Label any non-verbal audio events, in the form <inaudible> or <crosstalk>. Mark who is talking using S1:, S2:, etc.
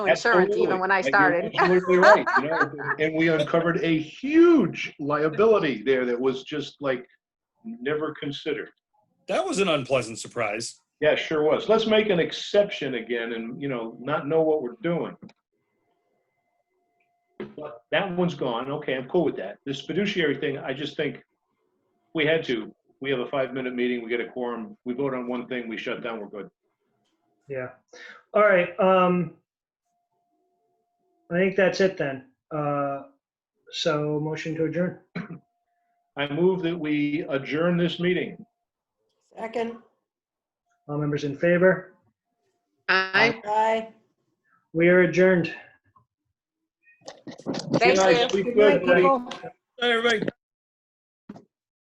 S1: insurance
S2: Absolutely.
S1: even when I
S2: And you're <laughs>
S1: started.
S2: Absolutely right. you know,
S1: <laughs>
S2: And we uncovered a huge liability there that was just like never considered.
S3: That was an unpleasant surprise.
S2: Yeah, sure was. Let's make an exception again and, you know, not know what we're doing. But that one's gone. Okay, I'm cool with that. This fiduciary thing, I just think we had to. We have a five-minute meeting, we get a quorum, we vote on one thing, we shut down, we're good.
S4: Yeah. All right. Um, I think that's it then. Uh, so motion to adjourn.
S2: I move that we adjourn this meeting.
S5: Second,
S4: All members in favor?
S1: Aye.
S5: aye.
S4: We are adjourned.
S1: Thank
S2: Good night,
S1: you.
S2: sleep
S5: Good
S2: good,
S5: night,
S2: everybody.
S5: people.
S3: Hey, everybody.